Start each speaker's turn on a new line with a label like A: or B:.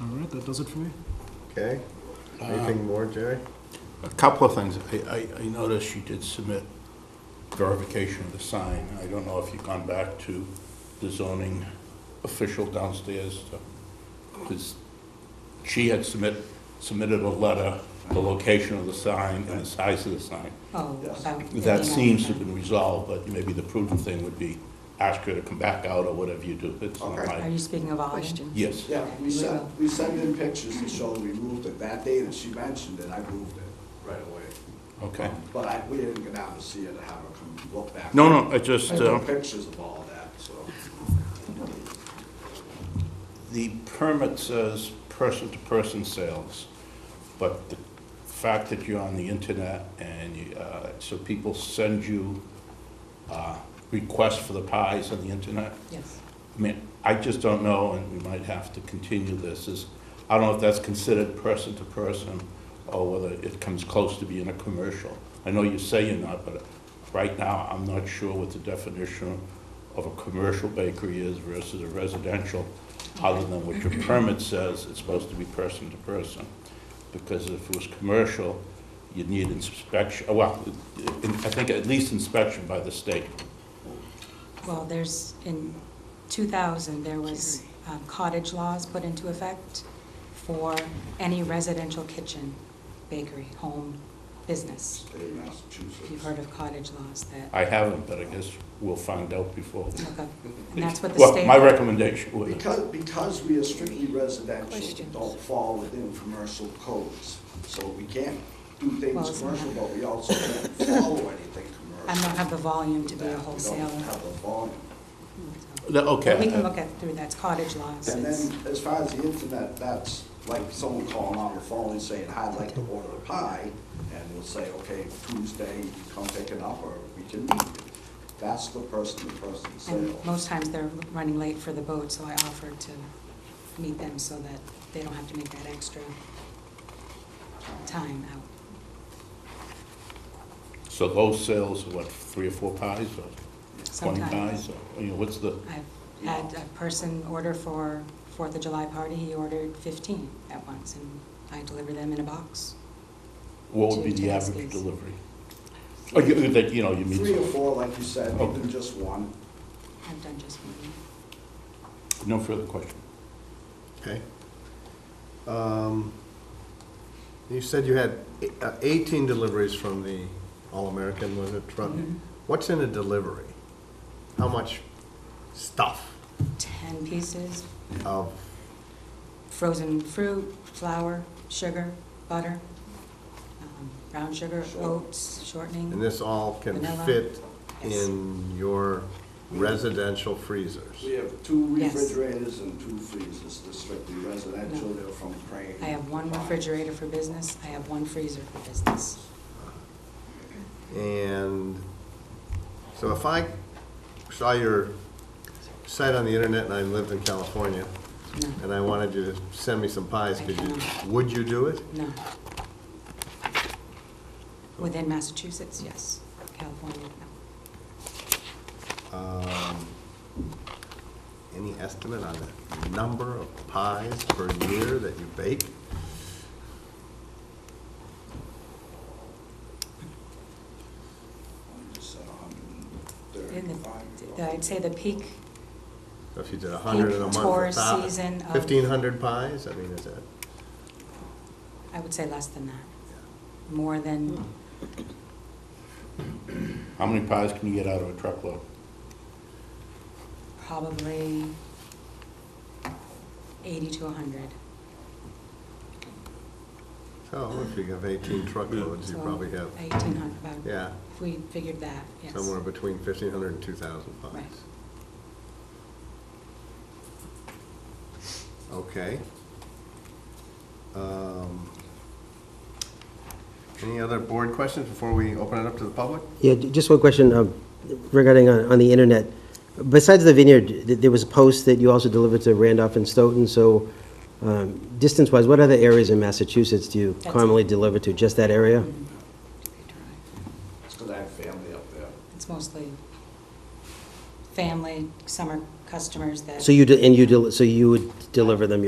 A: All right, that does it for me.
B: Okay? Anything more, Jerry?
C: A couple of things. I, I, I noticed you did submit verification of the sign. I don't know if you've gone back to the zoning official downstairs, because she had submit, submitted a letter, the location of the sign and the size of the sign.
D: Oh, about
C: That
D: 59.
C: seems to have been resolved, but maybe the prudent thing would be ask her to come back out or whatever you do. It's not
E: Okay.
D: Are
C: my,
D: you speaking of Ollie?
F: Question.
C: yes.
E: Yeah, we sent, we sent in pictures to show we moved it. That day that she mentioned it, I moved it right away.
C: Okay.
E: But I, we didn't get out to see it, have her come look back.
C: No, no, I just,
E: I took
C: uh,
E: pictures of all that, so.
C: The permit says person-to-person sales, but the fact that you're on the internet and, you- uh, so people send you, uh, requests for the pies on the internet?
D: Yes.
C: I mean, I just don't know, and we might have to continue this, is, I don't know if that's considered person-to-person or whether it comes close to being a commercial. I know you say you're not, but right now, I'm not sure what the definition of a commercial bakery is versus a residential, other than what your permit says, it's supposed to be person-to-person. Because if it was commercial, you'd need inspection, uh, well, I think at least inspection by the state.
D: Well, there's, in 2000, there was um, cottage laws put into effect for any residential kitchen, bakery, home, business.
E: State of
D: If You've
E: Massachusetts.
D: heard of cottage laws that,
C: I haven't, but I guess we'll find out before.
D: look up, and that's what the state.
C: Well, my recommendation would,
E: Because, because we are strictly residential,
F: Questions?
E: don't fall within commercial codes. So we can't do
D: Well,
E: things
D: it's
E: commercial,
D: not-
E: but we also can't follow anything commercial.
D: I don't have the volume to be
E: We
D: a
E: don't
D: wholesaler.
E: have the volume.
D: so.
C: Th- okay.
D: We can look at through, that's cottage laws.
E: And
D: It's-
E: then, as far as the internet, that's like someone calling on the phone and saying, I'd like to order a pie, and we'll say, okay, Tuesday, you come pick it up, or we can meet. That's the person-to-person sale.
D: And most times they're running late for the boat, so I offered to meet them so that they don't have to make that extra time out.
C: so those sales, what, three or four pies or twenty
D: Sometimes
C: pies? or, You know, what's the,
D: I've had a person order for Fourth of July party, he ordered fifteen at once, and I deliver them in a box.
C: what would be
D: Two
C: the average
D: taskis.
C: delivery? Or you, that, you know, you meet.
E: Three or four, like you said, even
C: Okay.
E: just one.
D: I've done just one.
C: No further question.
B: Okay. Um, You said you had e- uh, 18 deliveries from the All-American, was it,
D: Mhm.
B: from, what's in a delivery? How much stuff
D: Ten pieces,
B: of,
D: frozen fruit, flour, sugar, butter, um, brown sugar, oats,
B: and
D: shortening.
B: this all can
D: Vanilla.
B: fit
D: Yes.
B: in your residential freezers?
E: We have two
D: Yes.
E: refrigerators and two freezers, they're strictly residential, they're from Crane.
D: I have one refrigerator for business, I have one freezer for business.
B: And so if I saw your site on the internet and I lived in California,
D: No,
B: and I wanted you to send me some pies,
D: I
B: could you,
D: cannot.
B: would you do it?
D: no. Within Massachusetts, yes. California, no.
B: Um, Any estimate on the number of pies per year that you bake?
E: We just said
D: In
E: 135.
D: the- I'd say the peak,
B: If you did a hundred in a month,
D: Tour
B: a thousand,
D: season of-
B: fifteen hundred pies, I mean, is that?
D: I would say less than that. More than,
B: Hmm.
C: How many pies can you get out of a truckload?
D: probably 80 to 100.
B: So if you have eighteen truckloads, you
D: So
B: probably have,
D: 1,800, about-
B: yeah,
D: if we figured that, yes.
B: somewhere between fifteen hundred and two thousand
D: Right.
B: pies. Okay. Um, Any other board questions before we open it up to the public?
G: Yeah, j- just one question um, regarding uh, on on the internet. Besides the vineyard, th- there was a post that you also delivered to Randolph and Stoughton, so um, distance-wise, what other areas in Massachusetts do you
D: That's it.
G: commonly deliver to? Just that area?
D: Mm-hmm.
E: It's because I have family up there.
D: It's mostly family, summer customers that.
G: So you, de- and you, del- so you would deliver them